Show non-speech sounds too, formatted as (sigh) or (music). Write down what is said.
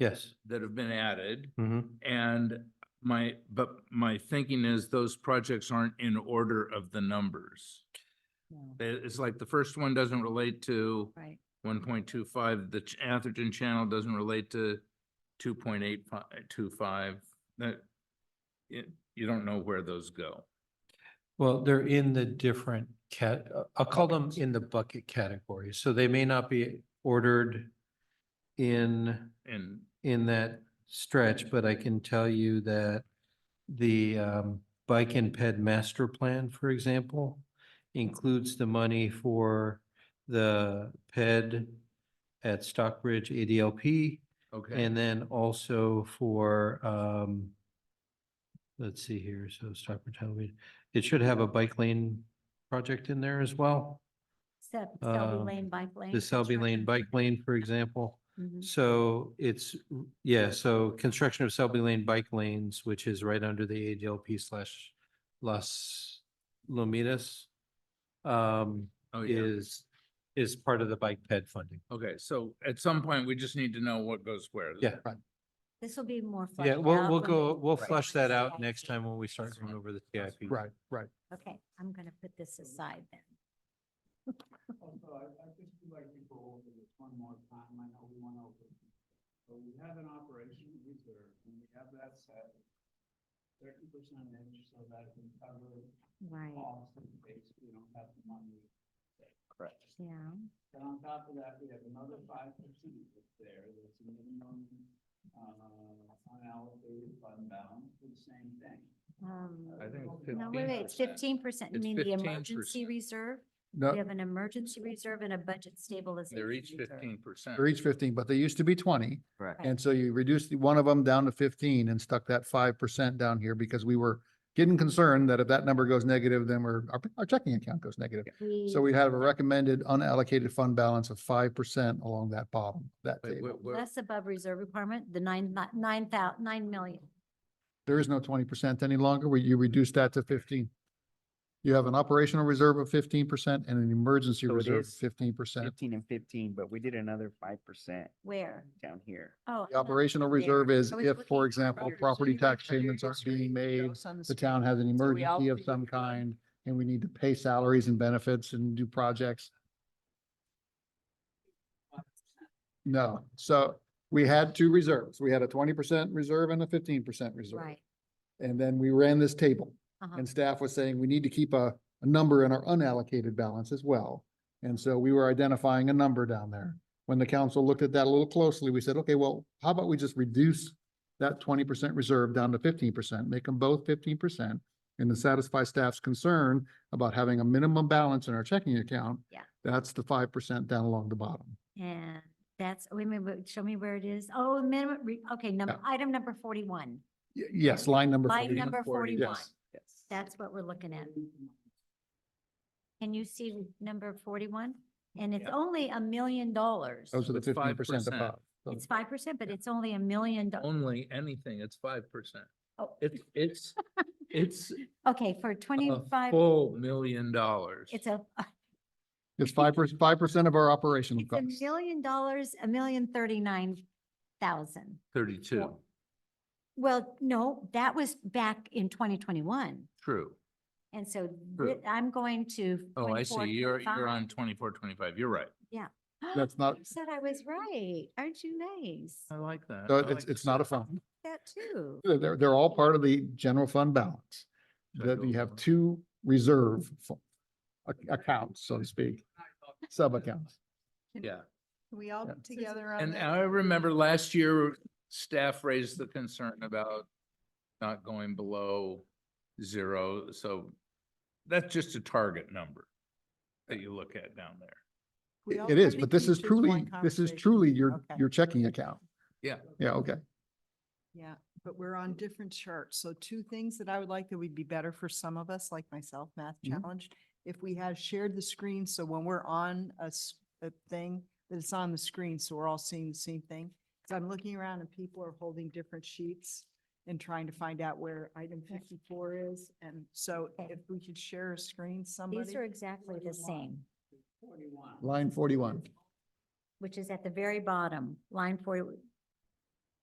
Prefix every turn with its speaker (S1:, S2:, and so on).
S1: Yes.
S2: that have been added.
S1: Mhm.
S2: And my, but my thinking is those projects aren't in order of the numbers.
S3: No,
S2: They- It's like the first one doesn't relate to
S3: Right,
S2: one point two five, the Ch- Atherton Channel doesn't relate to two point eight five, two five, that you, you don't know where those go.
S1: Well, they're in the different cat, uh, I'll call them in the bucket category. So they may not be ordered in,
S2: And
S1: in that stretch, but I can tell you that the um, Bike and Ped Master Plan, for example, includes the money for the ped at Stockbridge ADLP.
S2: Okay,
S1: And then also for, um, let's see here, so Stockbridge Halloween, it should have a bike lane project in there as well.
S3: except Selby
S1: Um,
S3: Lane Bike Lane.
S1: The Selby Lane Bike Lane, for example.
S3: Mhm.
S1: So it's, yeah, so construction of Selby Lane bike lanes, which is right under the ADLP slash Las Lomitas, um,
S2: oh, yeah,
S1: is, is part of the bike ped funding.
S2: okay, so at some point, we just need to know what goes where.
S1: Yeah.
S3: This will be more.
S1: Yeah,
S3: fleshed
S1: we'll,
S3: out
S1: we'll
S3: when
S1: go,
S3: we
S1: we'll
S3: go
S1: flush
S3: over
S1: that
S3: the
S1: out next
S3: CIP.
S1: time when we start going over the TIP.
S4: Mm.
S5: Right, right.
S3: Okay, I'm gonna put this aside then.
S6: Also, I, I just would like to go over this one more time, I know we went over. it. But we have an operation reserve, and we have that set. Thirty percentage, so that can cover
S3: Right,
S6: costs in case we don't have the money. Correct.
S3: yeah.
S6: And on top of that, we have another five percent that's there, that's a minimum, uh, unallocated fund balance for the same thing.
S3: um,
S2: I think it's
S3: No, wait, wait, it's
S6: 15%.
S3: fifteen percent. You
S2: It's
S3: mean the
S2: 15%.
S3: emergency reserve? We
S5: No,
S3: have an emergency reserve and a budget stabilization.
S2: They're each
S3: reserve.
S2: fifteen percent.
S5: they're each fifteen, but they used to be twenty.
S4: Correct.
S5: And so you reduced the- one of them down to fifteen and stuck that five percent down here because we were getting concerned that if that number goes negative, then we're, our, our checking account goes negative. So we have a recommended unallocated fund balance of five percent along that bottom, that
S2: Wait,
S5: table.
S2: wh- wh-
S3: Less above reserve requirement, the nine, ni- nine thou, nine million.
S5: There is no twenty percent any longer. We, you reduced that to fifteen. You have an operational reserve of fifteen percent and an emergency
S4: So it
S5: reserve of
S4: is
S5: fifteen percent.
S4: Fifteen and fifteen, but we did another five percent
S3: Where?
S4: down here.
S3: Oh.
S5: The operational reserve is if, for example, property
S7: property- so you
S5: tax
S7: require
S5: payments aren't
S7: district
S5: being made,
S7: goes on
S5: the
S7: street.
S5: town has an
S7: So we
S5: emergency of
S7: allocate
S5: some
S7: the fund.
S5: kind, and we need to pay salaries and benefits and do projects. No, so we had two reserves. We had a twenty percent reserve and a fifteen percent reserve.
S3: Right.
S5: And then we ran this table,
S3: uh-huh.
S5: and staff was saying we need to keep a, a number in our unallocated balance as well. And so we were identifying a number down there. When the council looked at that a little closely, we said, okay, well, how about we just reduce that twenty percent reserve down to fifteen percent, make them both fifteen percent? And to satisfy staff's concern about having a minimum balance in our checking account.
S3: Yeah.
S5: That's the five percent down along the bottom.
S3: And that's, wait a minute, wait, show me where it is. Oh, minimum, re- okay, number, item number forty-one.
S5: Y- yes, line number.
S3: Line
S5: 41.
S3: number forty-one.
S5: Yes.
S4: Yes.
S3: That's what we're looking at. Can you see number forty-one? And it's
S2: Yeah.
S3: only a million dollars.
S5: Those are the
S2: It's
S5: fifteen percent
S2: 5%.
S5: above. So
S3: It's five percent, but it's only a million. do-
S2: Only anything, it's five percent.
S3: oh,
S2: It's, it's, it's
S3: Okay, for
S2: a
S3: twenty-five,
S2: full Oh, million dollars.
S3: it's a,
S5: It's five percent, five percent of our
S3: (laughs)
S5: operational
S3: it's a
S5: costs.
S3: million dollars, a million thirty-nine thousand.
S2: Thirty-two,
S3: Well, no, that was back in twenty twenty-one.
S2: true.
S3: And so thi-
S2: True.
S3: I'm going to.
S2: Oh, I see.
S3: 24,
S2: You're, you're
S3: 25.
S2: on twenty-four, twenty-five. You're right.
S5: That's not-
S3: You (gasps) Said I was right. Aren't you nice?
S2: I like that.
S5: So
S2: I
S5: it's,
S2: like
S5: it's
S2: this.
S5: not a fund.
S3: That too.
S5: They're- They're, they're all part of the general fund balance.
S2: Should I
S5: That
S2: go
S5: you have
S2: over?
S5: two reserve fu- ac- accounts, so to speak, sub-accounts.
S2: Yeah.
S7: Can we all
S5: Yeah.
S7: get together on
S2: And
S7: that?
S2: I remember last year, staff raised the concern about not going below zero. So that's just a target number that you look at down there.
S7: We
S5: It
S7: all
S5: it is,
S7: pretty
S5: but this
S7: can
S5: is
S7: choose
S5: truly,
S7: one
S5: this is
S7: conversation.
S5: truly your,
S7: Okay.
S5: your checking account.
S2: Yeah.
S5: Yeah, okay.
S7: Yeah, but we're on different charts. So two things that I would like that would be better for some of us, like myself, math
S5: Mhm.
S7: challenged. If we had shared the screen, so when we're on a, s- a thing, that it's on the screen, so we're all seeing the same thing. Cause I'm looking around and people are holding different sheets and trying to find out where item fifty-four is. And so
S3: Okay.
S7: if we could share a screen, somebody.
S3: These are exactly the same,
S6: Forty-one.
S5: Line forty-one.
S3: which is at the very bottom, line forty,